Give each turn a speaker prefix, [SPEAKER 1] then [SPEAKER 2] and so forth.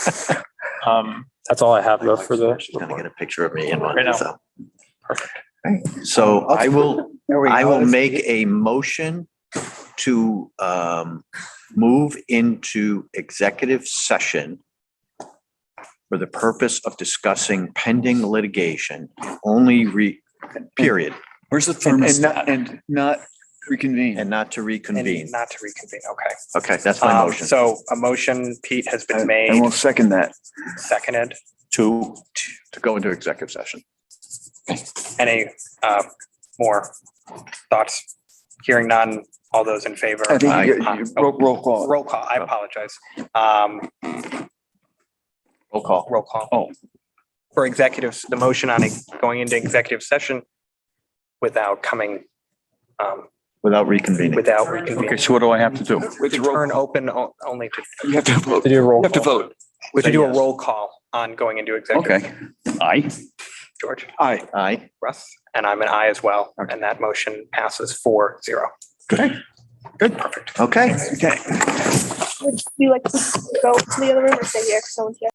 [SPEAKER 1] Um, that's all I have though for the,
[SPEAKER 2] She's gonna get a picture of me in
[SPEAKER 1] Right now.
[SPEAKER 2] one, so.
[SPEAKER 1] Perfect.
[SPEAKER 2] So I will,
[SPEAKER 3] There we
[SPEAKER 2] I
[SPEAKER 3] go.
[SPEAKER 2] will
[SPEAKER 3] That's-
[SPEAKER 2] make a motion to um move into executive session for the purpose of discussing pending litigation, only re, period,
[SPEAKER 4] Where's the
[SPEAKER 3] And and
[SPEAKER 4] thermostat?
[SPEAKER 3] not, and not reconvene.
[SPEAKER 2] and not to
[SPEAKER 1] and
[SPEAKER 2] reconvene.
[SPEAKER 1] not to reconvene, okay.
[SPEAKER 2] Okay, that's my
[SPEAKER 1] Um,
[SPEAKER 2] motion.
[SPEAKER 1] so a motion, Pete, has
[SPEAKER 3] I
[SPEAKER 1] been
[SPEAKER 3] I
[SPEAKER 1] made,
[SPEAKER 3] won't second that.
[SPEAKER 1] seconded,
[SPEAKER 2] To, to go into executive session.
[SPEAKER 1] any, uh, more thoughts? Hearing none, all those in favor?
[SPEAKER 3] I think you
[SPEAKER 1] Aye.
[SPEAKER 3] get- you- roll roll
[SPEAKER 1] Oh,
[SPEAKER 3] call.
[SPEAKER 1] Roll call, I apologize, um,
[SPEAKER 2] Roll call.
[SPEAKER 1] roll call.
[SPEAKER 3] Oh.
[SPEAKER 1] For executives, the motion on going into executive session without coming, um,
[SPEAKER 2] Without reconvening.
[SPEAKER 1] without
[SPEAKER 4] Okay,
[SPEAKER 1] reconvening.
[SPEAKER 4] so what do I have to do?
[SPEAKER 3] Which
[SPEAKER 1] To
[SPEAKER 3] roll,
[SPEAKER 1] turn open o- only to,
[SPEAKER 3] you have to vote. You
[SPEAKER 4] do a roll.
[SPEAKER 3] have to vote.
[SPEAKER 1] to
[SPEAKER 2] Say
[SPEAKER 1] do a
[SPEAKER 2] yes.
[SPEAKER 1] roll call on going into executive.
[SPEAKER 4] Okay. Aye.
[SPEAKER 1] George?
[SPEAKER 3] Aye.
[SPEAKER 2] Aye.
[SPEAKER 1] Russ, and I'm an I as well, and that motion passes four zero.
[SPEAKER 2] Okay.
[SPEAKER 3] Okay.
[SPEAKER 5] Would you like to go to the other room or stay here? 'Cause Someone's here.